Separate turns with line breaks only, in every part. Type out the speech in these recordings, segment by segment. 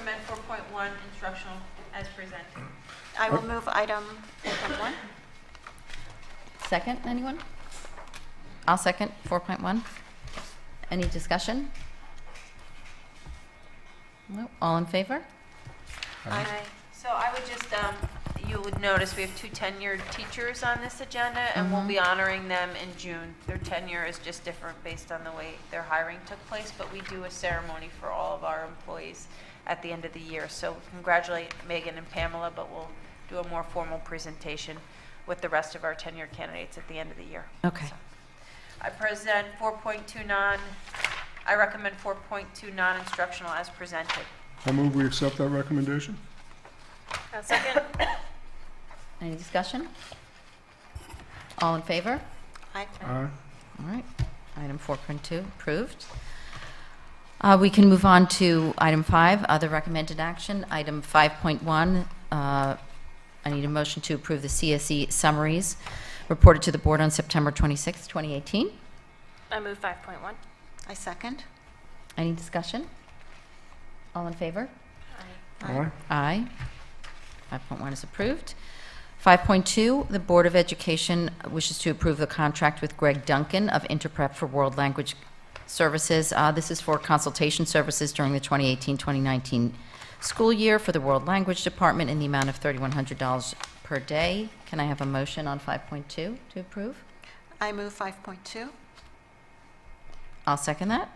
amend 4.1 instructional as presented.
I will move item 4.1.
Second, anyone? I'll second 4.1. Any discussion? No, all in favor?
Aye. So I would just, um, you would notice we have two tenured teachers on this agenda, and we'll be honoring them in June. Their tenure is just different based on the way their hiring took place, but we do a ceremony for all of our employees at the end of the year. So we congratulate Megan and Pamela, but we'll do a more formal presentation with the rest of our tenure candidates at the end of the year.
Okay.
So I present 4.29, I recommend 4.2 non-instructional as presented.
I move we accept that recommendation.
second.
Any discussion? All in favor?
Aye.
Aye.
All right, item 4.2 approved. Uh, We can move on to item 5, other recommended action. Item 5.1, uh, I need a motion to approve the CSE summaries reported to the board on September 26, 2018.
I move 5.1.
I second.
Any discussion? All in favor?
Aye.
Aye. 5.1 is approved. 5.2, the Board of Education wishes to approve the contract with Greg Duncan of Interprep for World Language Services. Uh, This is for consultation services during the 2018-2019 school year for the World Language Department in the amount of $3,100 per day. Can I have a motion on 5.2 to approve?
I move 5.2.
I'll second that.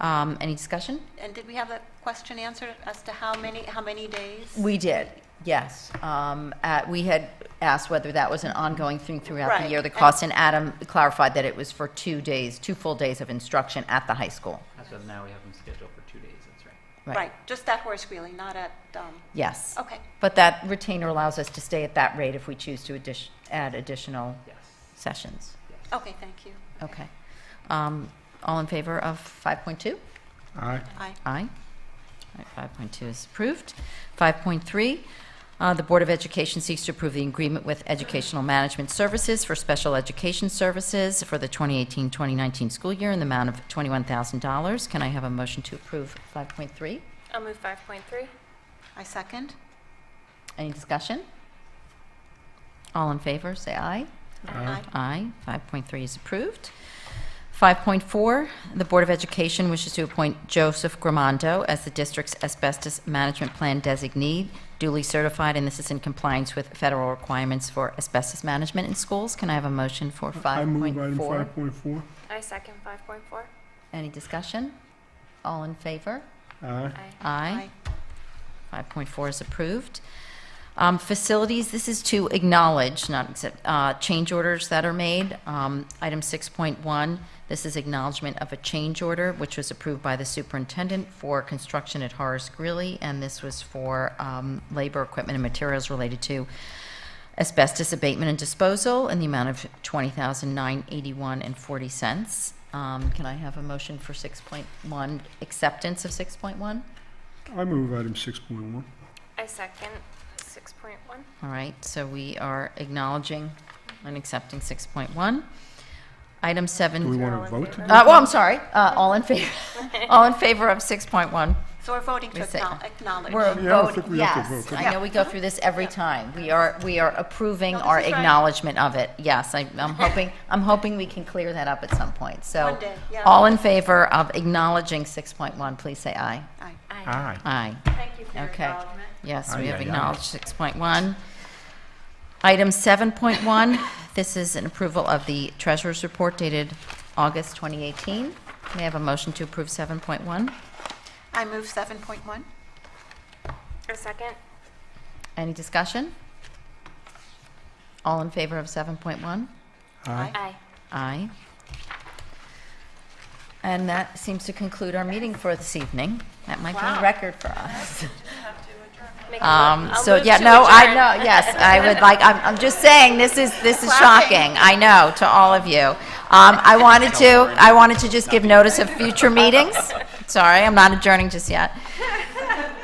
Um, Any discussion?
And did we have a question answered as to how many, how many days?
We did, yes. Um, at- We had asked whether that was an ongoing thing throughout the
Right.
year, the cost, and Adam clarified that it was for two days, two full days of instruction at the high school.
As of now, we have them scheduled for two days, that's right.
Right, just at Horace Greeley, not at, um,
Yes.
okay.
But that retainer allows us to stay at that rate if we choose to addition- add additional
Yes,
sessions.
yes.
Okay, thank you.
Okay. Um, All in favor of 5.2?
Aye.
Aye.
Aye. All right, 5.2 is approved. 5.3, uh, the Board of Education seeks to approve the agreement with Educational Management Services for Special Education Services for the 2018-2019 school year in the amount of $21,000. Can I have a motion to approve 5.3?
I'll move 5.3.
I second.
Any discussion? All in favor, say aye.
Aye.
Aye. 5.3 is approved. 5.4, the Board of Education wishes to appoint Joseph Gramando as the district's asbestos management plan designee, duly certified, and this is in compliance with federal requirements for asbestos management in schools. Can I have a motion for
I move item
5.4?
5.4.
I second 5.4.
Any discussion? All in favor?
Aye.
Aye. 5.4 is approved. Um, Facilities, this is to acknowledge, not accept, uh, change orders that are made. Um, Item 6.1, this is acknowledgement of a change order, which was approved by the superintendent for construction at Horace Greeley, and this was for um, labor, equipment, and materials related to asbestos abatement and disposal in the amount of $20,981.40. Um, Can I have a motion for 6.1, acceptance of 6.1?
I move item 6.1.
I second 6.1.
All right, so we are acknowledging and accepting 6.1. Item
Do we
7, uh,
want
all
to
in
vote to
favor?
do
well, I'm sorry, uh, all in favor, all in favor of 6.1.
So we're voting to
We say-
acknow- acknowledge.
We're
Yeah, I don't think
voting,
we have to vote,
yes.
do
I
we?
know we go through this every time. We are, we are approving
No, this
our
is right.
acknowledgement of it. Yes, I- I'm hoping, I'm hoping we can clear that up at some point, so.
One day, yeah.
All in favor of acknowledging 6.1, please say aye.
Aye.
Aye.
Aye.
Thank you for your
Okay.
acknowledgement.
Yes,
Aye,
we have
aye, aye.
acknowledged 6.1. Item 7.1, this is an approval of the treasurer's report dated August 2018. May I have a motion to approve 7.1?
I move 7.1.
I second.
Any discussion? All in favor of 7.1?
Aye.
Aye.
Aye. And that seems to conclude our meeting for this evening. That might be a
Wow.
record for us.
Make a
Um,
mo- I'll
so
move
yeah,
to
no, I
adjourn.
know. Yes, I would like. I'm, I'm just saying this is this is shocking. I know to all of you. Um, I wanted to I wanted to just give notice of future meetings. Sorry, I'm not adjourning just yet.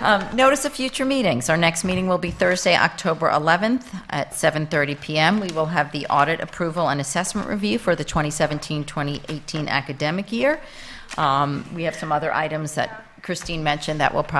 Um, notice of future meetings. Our next meeting will be Thursday, October 11th at 7:30 p.m. We will have the audit approval and assessment review for the 2017-2018 academic year. Um, we have some other items that Christine mentioned that will probably